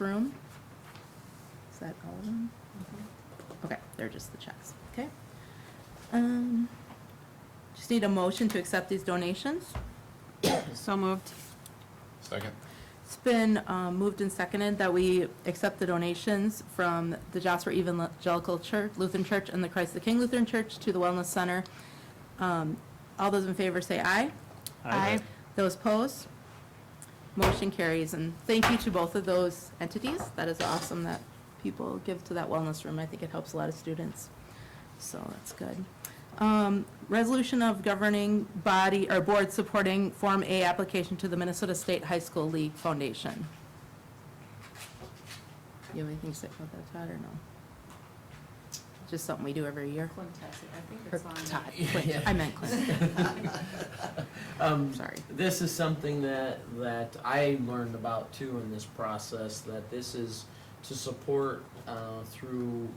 room? Is that all of them? Okay, they're just the checks, okay? Um, just need a motion to accept these donations. So moved. Second. It's been um, moved and seconded that we accept the donations from the Jasper Evangelical Church, Lutheran Church, and the Christ the King Lutheran Church to the Wellness Center. Um, All those in favor say aye. Aye. Those opposed? Motion carries, and thank you to both of those entities. That is awesome that people give to that wellness room. I think it helps a lot of students, so that's good. Um, Resolution of governing body or board supporting Form A application to the Minnesota State High School League Foundation. You have anything to say about that, Todd, or no? Just something we do every year? Clint has it. I think Or it's on. Todd, Clint, I meant Clint, Um, sorry. this is something that, that I learned about too in this process, that this is to support, uh, through,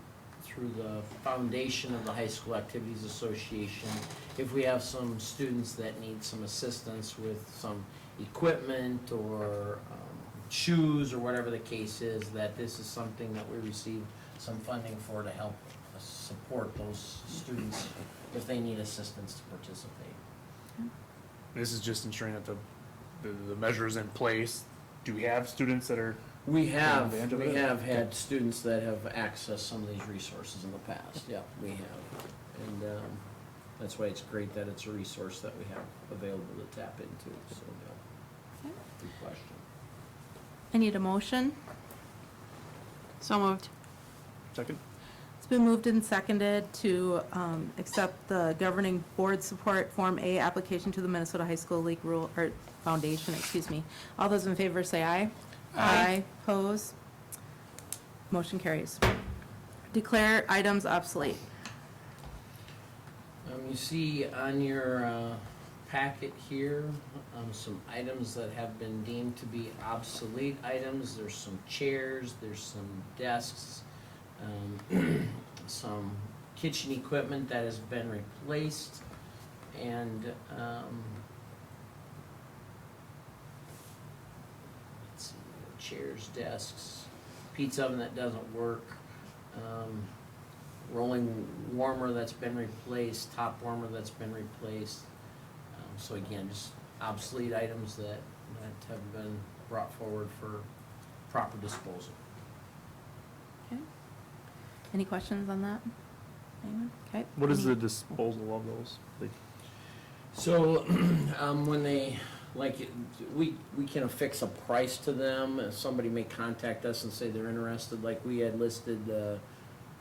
through the foundation of the High School Activities Association. If we have some students that need some assistance with some equipment or, um, shoes or whatever the case is, that this is something that we receive some funding for to help us support those students if they need assistance to participate. This is just ensuring that the, the, the measure is in place. Do we have students that are, We have, advantage of we it? have had students that have accessed some of these resources in the past, yeah, we have. And, um, that's why it's great that it's a resource that we have available to tap into, so, yeah. Good question. I need a motion. So moved. second? It's been moved and seconded to um, accept the governing board support Form A application to the Minnesota High School League Rule, or Foundation, excuse me. All those in favor say aye. Aye. Pose. Motion carries. Declare items obsolete. Um, you see on your, uh, packet here, um, some items that have been deemed to be obsolete items. There's some chairs, there's some desks, um, some kitchen equipment that has been replaced, and, um, let's see, chairs, desks, pizza oven that doesn't work, um, rolling warmer that's been replaced, top warmer that's been replaced. Um, So again, just obsolete items that, that have been brought forward for proper disposal. Any questions on that? Anyone? Okay. What is the disposal of those? Like, So, um, when they, like, it- we, we can affix a price to them, Uh, somebody may contact us and say they're interested, like we had listed, uh,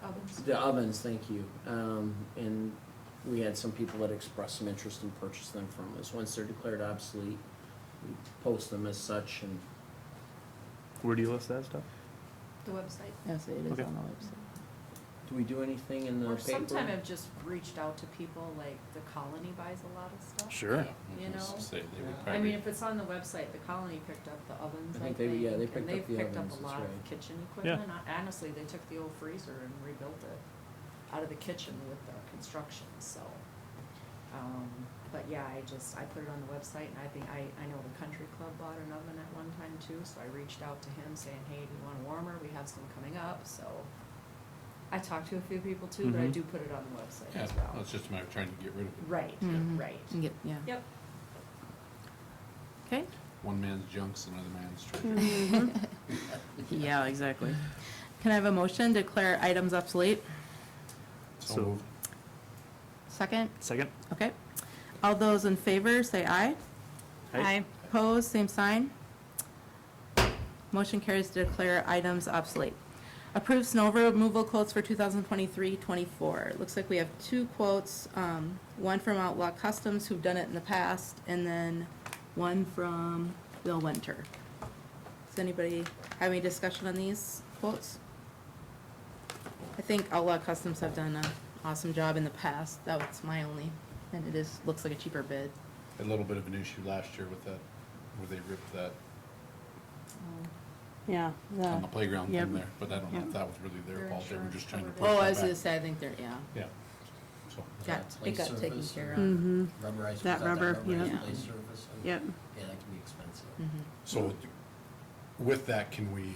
Ovens. The ovens, thank you. Um, and we had some people that expressed some interest and purchased them from us. Once they're declared obsolete, we post them as such and where do you list that stuff? The website. Yes, it is on the Okay. website. do we do anything in the Or paper? sometime I've just reached out to people, like, the colony buys a lot of stuff. Sure. You know? Say they would I mean, probably- if it's on the website, the colony picked up the ovens, I I think think, they- yeah, they and picked they've up the picked up ovens, a that's lot of right. kitchen equipment. Hon- Honestly, they took the old freezer and rebuilt it out of the kitchen with the construction, so. Um, but yeah, I just, I put it on the website, and I think, I, I know the country club bought an oven at one time too, so I reached out to him saying, hey, do you want a warmer? We have some coming up, so. I talked to a few people too, but I Mm-hmm. Mhm. do put it on the website Yeah, as well. well, it's just a matter of trying to get rid of it. Right, Mhm. right. You get- Yeah, Yep. okay. One man's junk's another man's treasure. Mm-hmm. Yeah, exactly. Can I have a motion to declare items obsolete? So- So moved. Second? Second? Okay. All those in favor, say aye. Aye. Opposed, same sign. Motion carries to declare items obsolete. Approve snow removal quotes for 2023-24. Looks like we have two quotes, um, one from Outlaw Customs, who've done it in the past, and then one from Bill Winter. Does anybody have any discussion on these quotes? I think Outlaw Customs have done an awesome job in the past. That was my only, and it is, looks like a cheaper bid. A little bit of an issue last year with that, where they ripped that Yeah. on the playground yep. thing there, but I don't know Yep. if that was really their Their fault, they were just trying to insurance push Oh, covered I that was gonna back. say, I think they're, yeah. Yeah. So, Got, it got Like taken surface care or- of. Mm-hmm. Rubberized, That without rubber, rubberized yeah. plate surface, and- Yep. Mm-hmm. Yeah, that can be expensive. Mhm. so with that, can we